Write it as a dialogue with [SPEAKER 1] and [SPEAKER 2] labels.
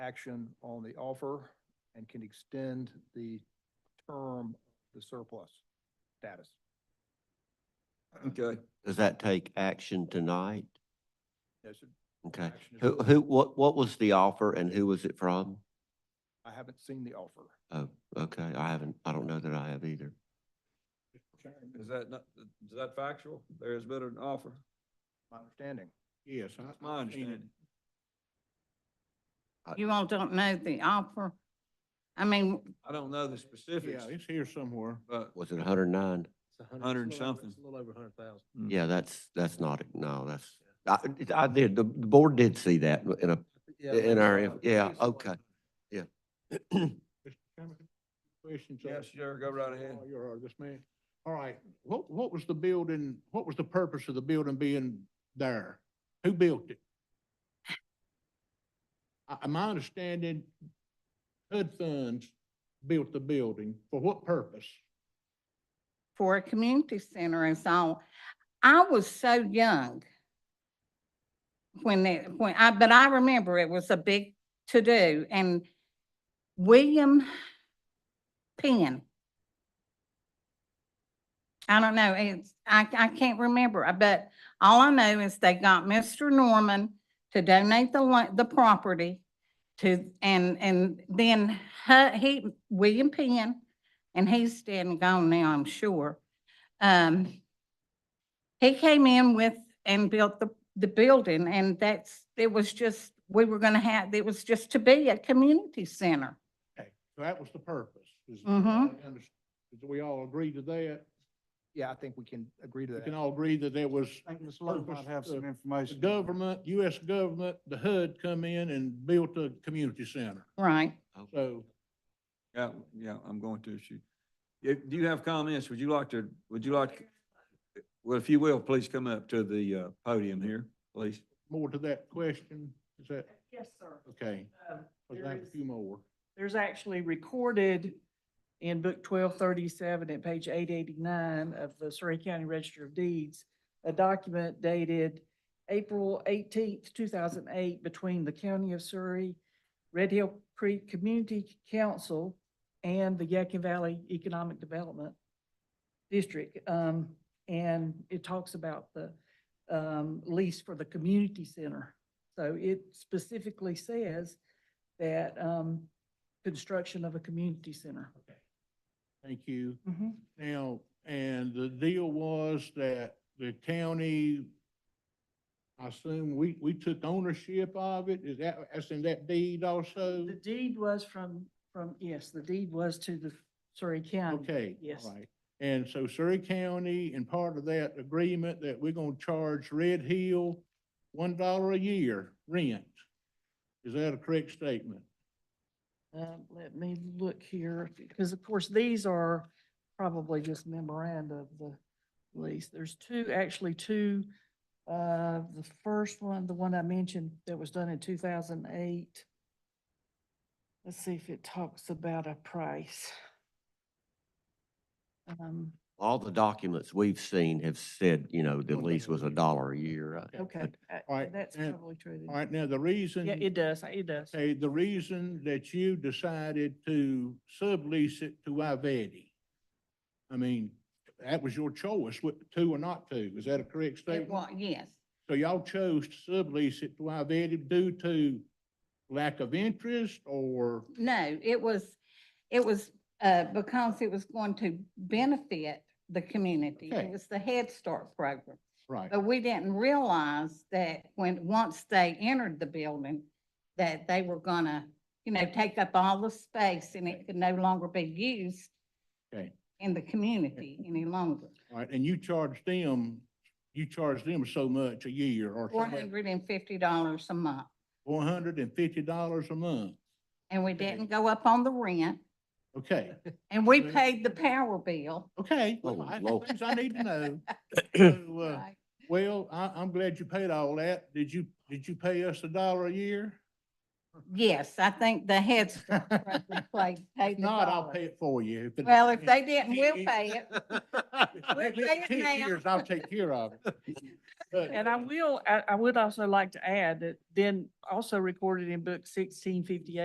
[SPEAKER 1] action on the offer and can extend the term, of the surplus status.
[SPEAKER 2] Okay.
[SPEAKER 3] Does that take action tonight?
[SPEAKER 1] Yes, sir.
[SPEAKER 3] Okay.
[SPEAKER 1] Action is-
[SPEAKER 3] Who, who, what, what was the offer and who was it from?
[SPEAKER 1] I haven't seen the offer.
[SPEAKER 3] Oh, okay. I haven't, I don't know that I have either.
[SPEAKER 2] Is that not, is that factual? There has been an offer.
[SPEAKER 1] My understanding.
[SPEAKER 4] Yes. I-
[SPEAKER 2] That's my
[SPEAKER 4] I've seen it.
[SPEAKER 2] understanding.
[SPEAKER 5] You all don't know the offer? I mean,
[SPEAKER 2] I don't know the specifics,
[SPEAKER 4] Yeah, it's here somewhere.
[SPEAKER 2] but
[SPEAKER 3] Was it hundred and nine?
[SPEAKER 2] hundred and something.
[SPEAKER 3] Yeah, that's, that's not, no, that's, I, I did, the, the board did see that in a, in our, yeah, okay. Yeah.
[SPEAKER 4] Mr. Chairman, Questions? of-
[SPEAKER 2] Yes, sure, go right ahead.
[SPEAKER 4] Oh, You're all this man. All right, what, what was the building, what was the purpose of the building being there? Who built it? I, I- my understanding, HUD funds built the building. For what purpose?
[SPEAKER 5] for a community center and so, I was so young when it, when I, but I remember it was a big to-do and William Penn. I don't know, it's, I, I can't remember, I- but all I know is they got Mr. Norman to donate the, lo- the property to, and, and then hu- he, William Penn and he's dead and gone now, I'm sure. Um, he came in with and built the, the building and that's, it was just, we were gonna have, it was just to be a community center.
[SPEAKER 4] Okay, so that was the purpose. Is-
[SPEAKER 5] Mhm.
[SPEAKER 4] I under- Did we all agree to that?
[SPEAKER 1] Yeah, I think we can agree to
[SPEAKER 4] We can
[SPEAKER 1] that.
[SPEAKER 4] all agree that there was
[SPEAKER 6] I think Ms. Lowe might
[SPEAKER 4] Purpose
[SPEAKER 6] have
[SPEAKER 4] of
[SPEAKER 6] some
[SPEAKER 4] the the
[SPEAKER 6] information.
[SPEAKER 4] government, US government, the HUD come in and built a community center.
[SPEAKER 5] Right.
[SPEAKER 4] So
[SPEAKER 2] Yeah, yeah, I'm going to shoot. If, do you have comments? Would you like to, would you like, well, if you will, please come up to the, uh, podium here, please.
[SPEAKER 4] more to that question, is that,
[SPEAKER 7] Yes, sir.
[SPEAKER 4] okay,
[SPEAKER 7] Um,
[SPEAKER 4] let's
[SPEAKER 7] there
[SPEAKER 4] have a
[SPEAKER 7] is-
[SPEAKER 4] few more.
[SPEAKER 7] There's actually recorded in book twelve thirty-seven at page eight eighty-nine of the Surrey County Register of Deeds, a document dated April eighteenth, two thousand eight, between the County of Surrey, Red Hill Creek Community Council, and the Yakin Valley Economic Development District. Um, and it talks about the, um, lease for the community center. So it specifically says that, um, construction of a community center.
[SPEAKER 4] Thank you. Now, and the deal was that the county, I assume we, we took ownership of it, is that, that's in that deed also?
[SPEAKER 7] The deed was from, from, yes, the deed was to the Surrey County.
[SPEAKER 4] Okay,
[SPEAKER 7] Um, yes.
[SPEAKER 4] all right. And so Surrey County, and part of that agreement that we're gonna charge Red Hill one dollar a year rent. Is that a correct statement?
[SPEAKER 7] Um, let me look here, because of course, these are probably just memoranda of the lease. There's two, actually two. Uh, the first one, the one I mentioned that was done in two thousand eight. Let's see if it talks about a price. Um,
[SPEAKER 3] All the documents we've seen have said, you know, the lease was a dollar a year, uh, right?
[SPEAKER 7] okay, I-
[SPEAKER 4] All right,
[SPEAKER 7] that's
[SPEAKER 4] and-
[SPEAKER 7] probably true. then.
[SPEAKER 4] All right, now the reason.
[SPEAKER 7] Yeah, it does, it does.
[SPEAKER 4] Okay, the reason that you decided to sublease it to Ivedi. I mean, that was your choice, what, to or not to. Is that a correct
[SPEAKER 5] It
[SPEAKER 4] statement?
[SPEAKER 5] was, yes.
[SPEAKER 4] So y'all chose to sublease it to Ivedi due to lack of interest or,
[SPEAKER 5] No, it was, it was, uh, because it was going to benefit the community.
[SPEAKER 4] Okay.
[SPEAKER 5] It was the Head Start program.
[SPEAKER 4] right?
[SPEAKER 5] But we didn't realize that when, once they entered the building, that they were gonna, you know, take up all the space and it could no longer be used
[SPEAKER 4] Okay.
[SPEAKER 5] in the community any longer.
[SPEAKER 4] All right, and you charged them, you charged them so much a year or
[SPEAKER 5] Four hundred and fifty dollars a month.
[SPEAKER 4] four hundred and fifty dollars a month.
[SPEAKER 5] And we
[SPEAKER 4] Okay.
[SPEAKER 5] didn't go up on the rent
[SPEAKER 4] Okay,
[SPEAKER 5] and we
[SPEAKER 4] Right.
[SPEAKER 5] paid the power bill.
[SPEAKER 4] okay.
[SPEAKER 3] Oh,
[SPEAKER 4] Well, I-
[SPEAKER 3] Lord.
[SPEAKER 4] Things I need to know. So, uh,
[SPEAKER 5] Right.
[SPEAKER 4] Well, I, I'm glad you paid all that. Did you, did you pay us a dollar a year?
[SPEAKER 5] Yes, I think the Head Start program played, paid
[SPEAKER 4] If
[SPEAKER 5] the
[SPEAKER 4] not, I'll
[SPEAKER 5] dollar.
[SPEAKER 4] pay it for you. it-
[SPEAKER 5] Well, if they
[SPEAKER 4] it-
[SPEAKER 5] didn't, we'll
[SPEAKER 4] it-
[SPEAKER 5] pay it.
[SPEAKER 4] Next
[SPEAKER 5] pay it
[SPEAKER 4] 10
[SPEAKER 5] now.
[SPEAKER 4] years, I'll take care of it. But-
[SPEAKER 7] And I will, I, I would also like to add that then also recorded in book sixteen fifty-eight